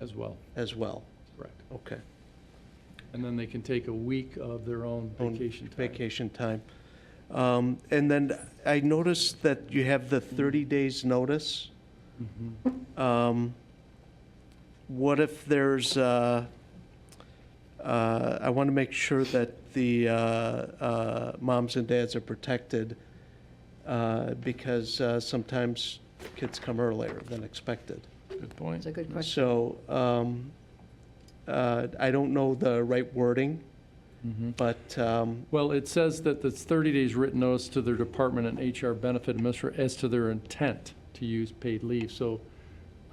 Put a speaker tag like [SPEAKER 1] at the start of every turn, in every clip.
[SPEAKER 1] as well,
[SPEAKER 2] as well?
[SPEAKER 1] correct.
[SPEAKER 2] Okay.
[SPEAKER 1] And then they can take a week of their own
[SPEAKER 2] own
[SPEAKER 1] vacation time.
[SPEAKER 2] Vacation time. Um, And then I noticed that you have the 30 days' notice.
[SPEAKER 1] Mm-hmm.
[SPEAKER 2] Um, What if there's, uh, uh, I want to make sure that the uh, uh, moms and dads are protected uh, because uh, sometimes kids come earlier than expected.
[SPEAKER 3] Good
[SPEAKER 4] That's
[SPEAKER 3] point.
[SPEAKER 4] a good question.
[SPEAKER 2] So um, uh, I don't know the right wording, but um,
[SPEAKER 1] Well, it says that it's 30 days written notice to their department and HR benefit administrator as to their intent to use paid leave, so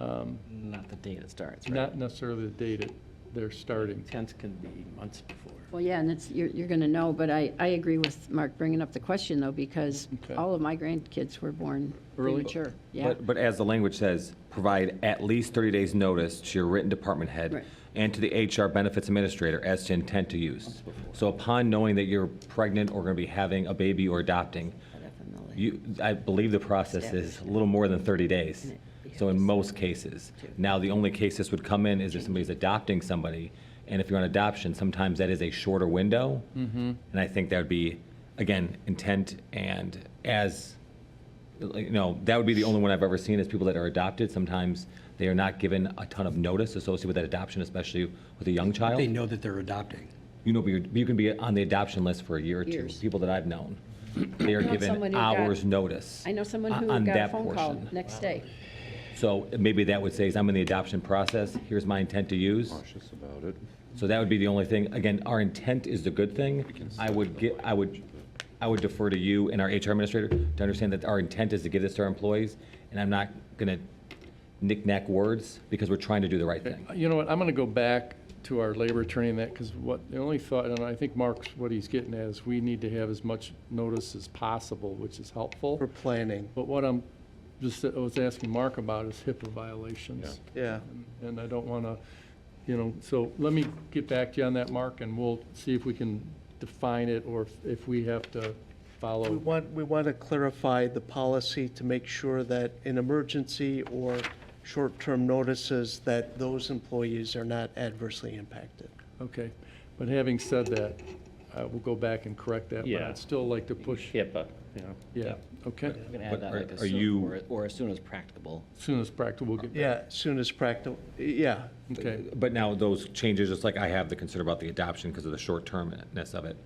[SPEAKER 1] um,
[SPEAKER 5] Not the date it starts, right?
[SPEAKER 1] not necessarily the date it- they're starting.
[SPEAKER 5] Tenth can be months before.
[SPEAKER 4] Well, yeah, and it's, you're, you're going to know, but I, I agree with Mark bringing up the question, though, because
[SPEAKER 1] Okay.
[SPEAKER 4] all of my grandkids were born
[SPEAKER 1] Early?
[SPEAKER 4] premature. Yeah,
[SPEAKER 6] But, but as the language says, provide at least 30 days' notice to your written department
[SPEAKER 4] Right.
[SPEAKER 6] head and to the HR benefits administrator as to intent to use. So upon knowing that you're pregnant or going to be having a baby or adopting, you, I believe the process is a little more than 30 days. So in most cases. Now, the only case this would come in is if somebody's adopting somebody, and if you're on adoption, sometimes that is a shorter window.
[SPEAKER 7] Mm-hmm.
[SPEAKER 6] And I think that would be, again, intent and as, like, you know, that would be the only one I've ever seen is people that are adopted. Sometimes they are not given a ton of notice associated with that adoption, especially with a young child.
[SPEAKER 7] They know that they're adopting.
[SPEAKER 6] You know, but you're- you can be on the adoption list for a year or two.
[SPEAKER 4] Years.
[SPEAKER 6] People that I've known, they are
[SPEAKER 4] know someone
[SPEAKER 6] given
[SPEAKER 4] who got-
[SPEAKER 6] hours' notice.
[SPEAKER 4] I know someone who
[SPEAKER 6] o- on
[SPEAKER 4] got a
[SPEAKER 6] that
[SPEAKER 4] phone call
[SPEAKER 6] portion.
[SPEAKER 4] next day.
[SPEAKER 6] So maybe that would say, is I'm in the adoption process, here's my intent to use.
[SPEAKER 3] Cautious about it.
[SPEAKER 6] So that would be the only thing. Again, our intent is the good thing. I would get, I would, I would defer to you and our HR administrator to understand that our intent is to give this to our employees, and I'm not gonna knick-knack words, because we're trying to do the right thing.
[SPEAKER 1] You know what, I'm going to go back to our labor attorney and that, because what, the only thought, and I think Mark's, what he's getting at is we need to have as much notice as possible, which is helpful.
[SPEAKER 2] for planning,
[SPEAKER 1] But what I'm, just, I was asking Mark about is HIPAA violations.
[SPEAKER 2] yeah.
[SPEAKER 1] And I don't want to, you know, so let me get back to you on that, Mark, and we'll see if we can define it or if- if we have to
[SPEAKER 2] We
[SPEAKER 1] follow.
[SPEAKER 2] want, we want to clarify the policy to make sure that in emergency or short-term notices, that those employees are not adversely impacted.
[SPEAKER 1] Okay. But having said that, I will go back and correct that. But
[SPEAKER 5] Yeah.
[SPEAKER 1] I'd still like to push,
[SPEAKER 5] HIPAA, you know.
[SPEAKER 1] yeah, okay?
[SPEAKER 5] You can add that
[SPEAKER 6] are-
[SPEAKER 5] like as
[SPEAKER 6] are
[SPEAKER 5] soon,
[SPEAKER 6] you-
[SPEAKER 5] or- or as soon as practicable.
[SPEAKER 1] Soon as practical, we'll get back.
[SPEAKER 2] Yeah, soon as practical, yeah,
[SPEAKER 1] Okay.
[SPEAKER 6] But now those changes, just like I have the concern about the adoption because of the short-termness of it,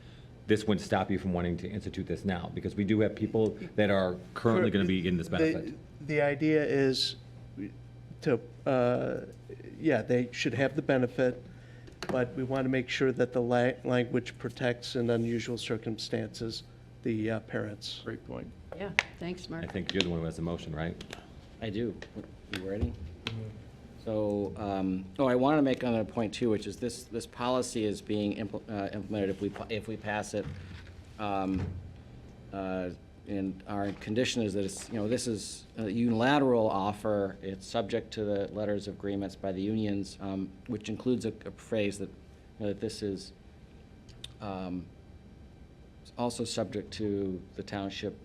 [SPEAKER 6] this wouldn't stop you from wanting to institute this now, because we do have people that are currently gonna be in this benefit.
[SPEAKER 2] The- The idea is to, uh, yeah, they should have the benefit, but we want to make sure that the la- language protects in unusual circumstances the uh, parents.
[SPEAKER 1] Great point.
[SPEAKER 4] Yeah, thanks, Mark.
[SPEAKER 6] I think you're the one who has the motion, right?
[SPEAKER 5] I do. You ready? So, um, oh, I want to make another point too, which is this, this policy is being impl- uh, implemented if we, pa- if we pass it. um, uh, And our condition is that it's, you know, this is a unilateral offer. It's subject to the letters of agreements by the unions, um, which includes a a phrase that, you know, that this is um, it's also subject to the township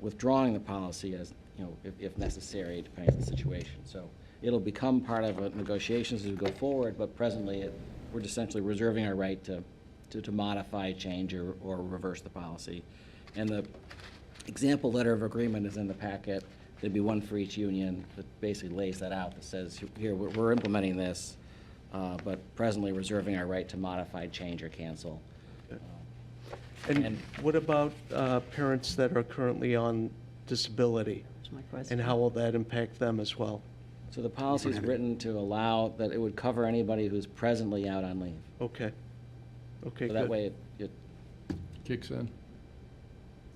[SPEAKER 5] withdrawing the policy as, you know, if, if necessary, depending on the situation. So it'll become part of uh, negotiations as we go forward, but presently, it- we're just essentially reserving our right to, to, to modify, change, or, or reverse the policy. And the example letter of agreement is in the packet. There'd be one for each union that basically lays that out, that says, here, we're, we're implementing this, uh, but presently reserving our right to modify, change, or cancel.
[SPEAKER 2] And
[SPEAKER 5] And-
[SPEAKER 2] what about uh, parents that are currently on disability?
[SPEAKER 4] That's my
[SPEAKER 2] And
[SPEAKER 4] question.
[SPEAKER 2] how will that impact them as well?
[SPEAKER 5] So the policy is written to allow that it would cover anybody who's presently out on leave.
[SPEAKER 2] Okay. Okay,
[SPEAKER 5] So that
[SPEAKER 2] good.
[SPEAKER 5] way, it- it,
[SPEAKER 1] Kicks in.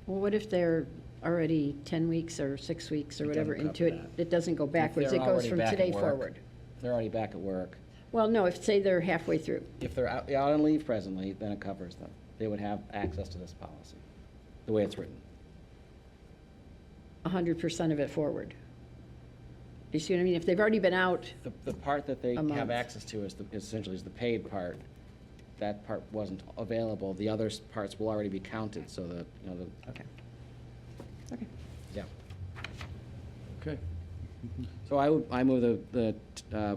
[SPEAKER 4] Well, what if they're already 10 weeks or six weeks or whatever
[SPEAKER 5] doesn't
[SPEAKER 4] into
[SPEAKER 5] cover
[SPEAKER 4] it? It doesn't go backwards,
[SPEAKER 5] they're
[SPEAKER 4] it goes
[SPEAKER 5] already
[SPEAKER 4] from
[SPEAKER 5] back at
[SPEAKER 4] today
[SPEAKER 5] work.
[SPEAKER 4] forward.
[SPEAKER 5] if they're already back at work,
[SPEAKER 4] Well, no, if, say they're halfway through.
[SPEAKER 5] if they're out, out on leave presently, then it covers them. They would have access to this policy, the way it's written.
[SPEAKER 4] hundred percent of it forward. You see what I mean? If they've already been out,
[SPEAKER 5] The, the part that they
[SPEAKER 4] A month.
[SPEAKER 5] have access to is the- essentially is the paid part. That part wasn't available. The other s- parts will already be counted, so that, you know, the,
[SPEAKER 4] okay. Okay.
[SPEAKER 5] yeah.
[SPEAKER 1] Okay.
[SPEAKER 5] So I would, I move the, the, uh,